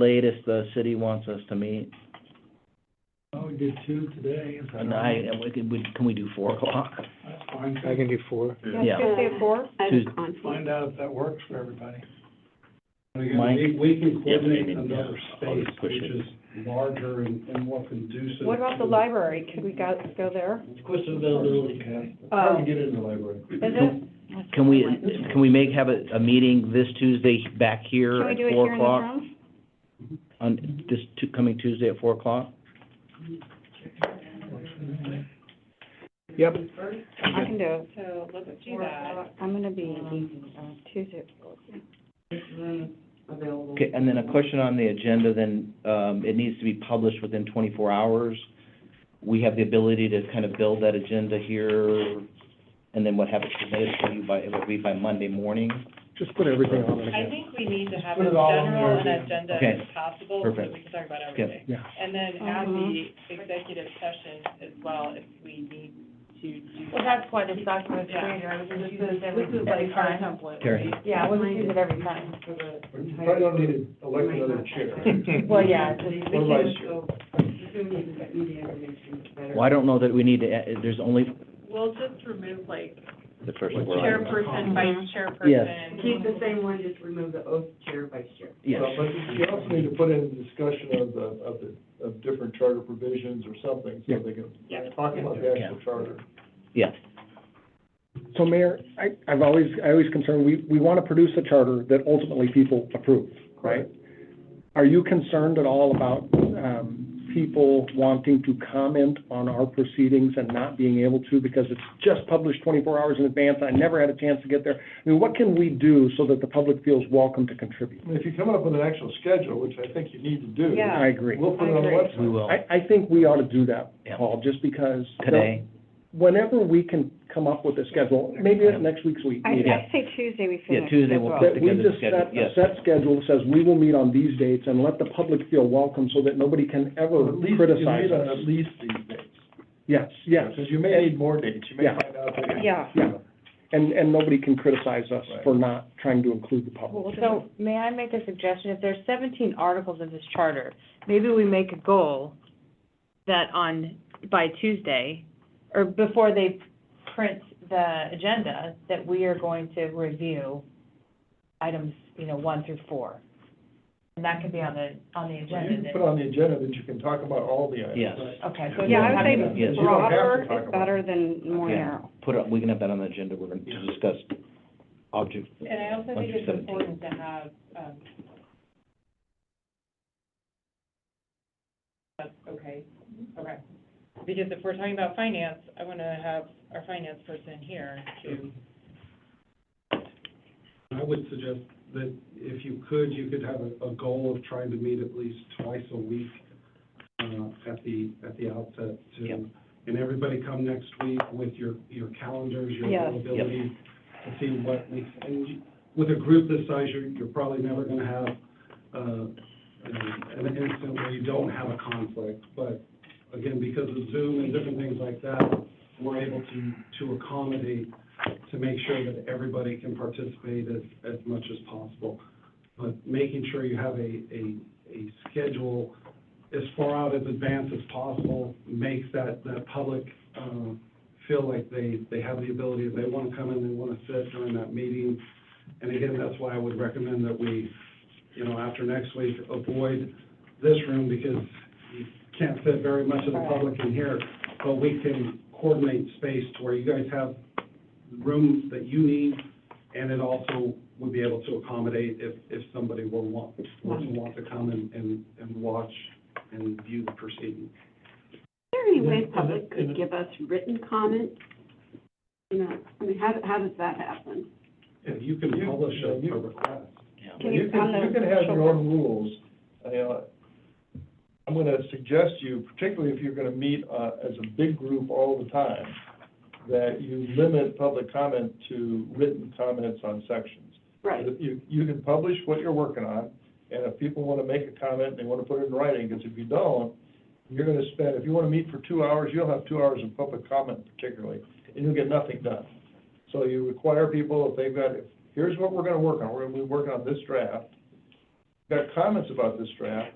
latest the city wants us to meet? Oh, we did two today. is that And I, right? and we can, we, can we do four o'clock? That's fine. I can do four. Yeah. Tuesday at four? I have Tues- a conflict. Find out if that works for everybody. And again, Mike? we, we can Yeah, coordinate maybe, yeah. another I'll space, just push which it. is larger and, and more conducive. What about the to- library? Could we go, go there? Question availability, Kathy. It's Oh. Hard to get in the library. Is it, Can we, can we make, have a, a meeting this Tuesday back here can we at do it four here in this o'clock? room? On this tu- coming Tuesday at four o'clock? Yep. I can do it. So let's do Or, that. uh, I'm gonna be, uh, Tuesday at four. Okay, and then a question on the agenda, then, um, it needs to be published within twenty-four hours. We have the ability to kind of build that agenda here, and then what happens submitted to you by, it would be by Monday morning? Just put everything on it I again. think we need to have Put as it all in general there, an yeah. agenda Okay. as possible, so that Perfect. we can talk about Yeah. everything. Yeah. And then at the Mhm. executive session as well, if we need to do. Well, that's why this document's created, we just use it every, every time. Terry? Yeah, we would use it every time. You probably don't need to elect another chair. Well, yeah, it's just, we Or vice can, chair. Well, I don't know that we need to, add- there's only We'll just remove like the first What's word. Right. your- chairperson, vice Mm-hmm. chairperson. Yes. Keep the same one, just remove the oath chair, vice chair. Yes. Well, But you also need to put in the discussion of the, of the, of different charter provisions or something, so they Yeah. can talk about the actual charter. Yeah, So Mayor, I, I've always, I always concerned, we, we want to produce a charter that ultimately people approve, right? Are you concerned at all about, um, people wanting to comment on our proceedings and not being able to because it's just published twenty-four hours in advance, I never had a chance to get there? I mean, what can we do so that the public feels welcome to contribute? I mean, If you come up with an actual schedule, which I think you need to do. Yeah. I agree. We'll put it on the I agree. website. we will, I, I think we ought to do that, Yeah. Paul, just because. today. Whenever we can come up with a schedule, maybe at next week's week. I, Yeah. I say Tuesday we finish. Tuesday as we'll well. put That we together the just schedule, set a yes. set schedule that says we will meet on these dates and let the public feel welcome so that nobody can ever At least, you criticize need on us. at least these dates. Yes, yes, Because you may need more dates, you may Yeah. find out. that- Yeah. yeah. And, and nobody can criticize us Right. for not trying to include the public. so may I make a suggestion? If there's seventeen articles in this charter, maybe we make a goal that on, by Tuesday, or before they print the agenda, that we are going to review items, you know, one through four. And that could be on the, on the Well, agenda You can then. put on the agenda that you can talk about all the items. Yes. Okay, so Yeah, I we'll have would to- You say Yes. don't have to broader talk is about better than more Yeah. narrow. Put up, we can have that on the agenda, we're going to discuss object. And I also think it's important to have, um, that's okay, okay. Because if we're talking about finance, I want to have our finance person here to, I would suggest that if you could, you could have a, a goal of trying to meet at least twice a week, uh, at the, at the outset Yep. to, and everybody come next week with your, your calendars, your Yes. availability, to see what we, and you- with a group this size, you're, you're probably never gonna have, uh, an an instant where you don't have a conflict, but again, because of Zoom and different things like that, we're able to, to accommodate to make sure that everybody can participate as, as much as possible. But making sure you have a, a, a schedule as far out as advanced as possible makes that, that public, um, feel like they, they have the ability, if they want to come in, they want to sit during that meeting. And again, that's why I would recommend that we, you know, after next week, avoid this room because you can't fit very much of the public in here. But we can coordinate space to where you guys have room that you need, and it also would be able to accommodate if, if somebody were want, were to want to come and, and, and watch and view the proceedings. Is there any way public could give us written comment? You know, I mean, how, how does that happen? If you can You- publish a you- a request. Can You you, can, on you the can have your social, own rules. I, uh, I'm going to suggest you, particularly if you're going to meet uh, as a big group all the time, that you limit public comment to written comments on sections. Right. You, you can publish what you're working on, and if people want to make a comment, they want to put it in writing, because if you don't, you're going to spend, if you want to meet for two hours, you'll have two hours of public comment particularly, and you'll get nothing done. So you require people, if they've got, if here's what we're gonna work on, we're gonna be working on this draft. got comments about this draft,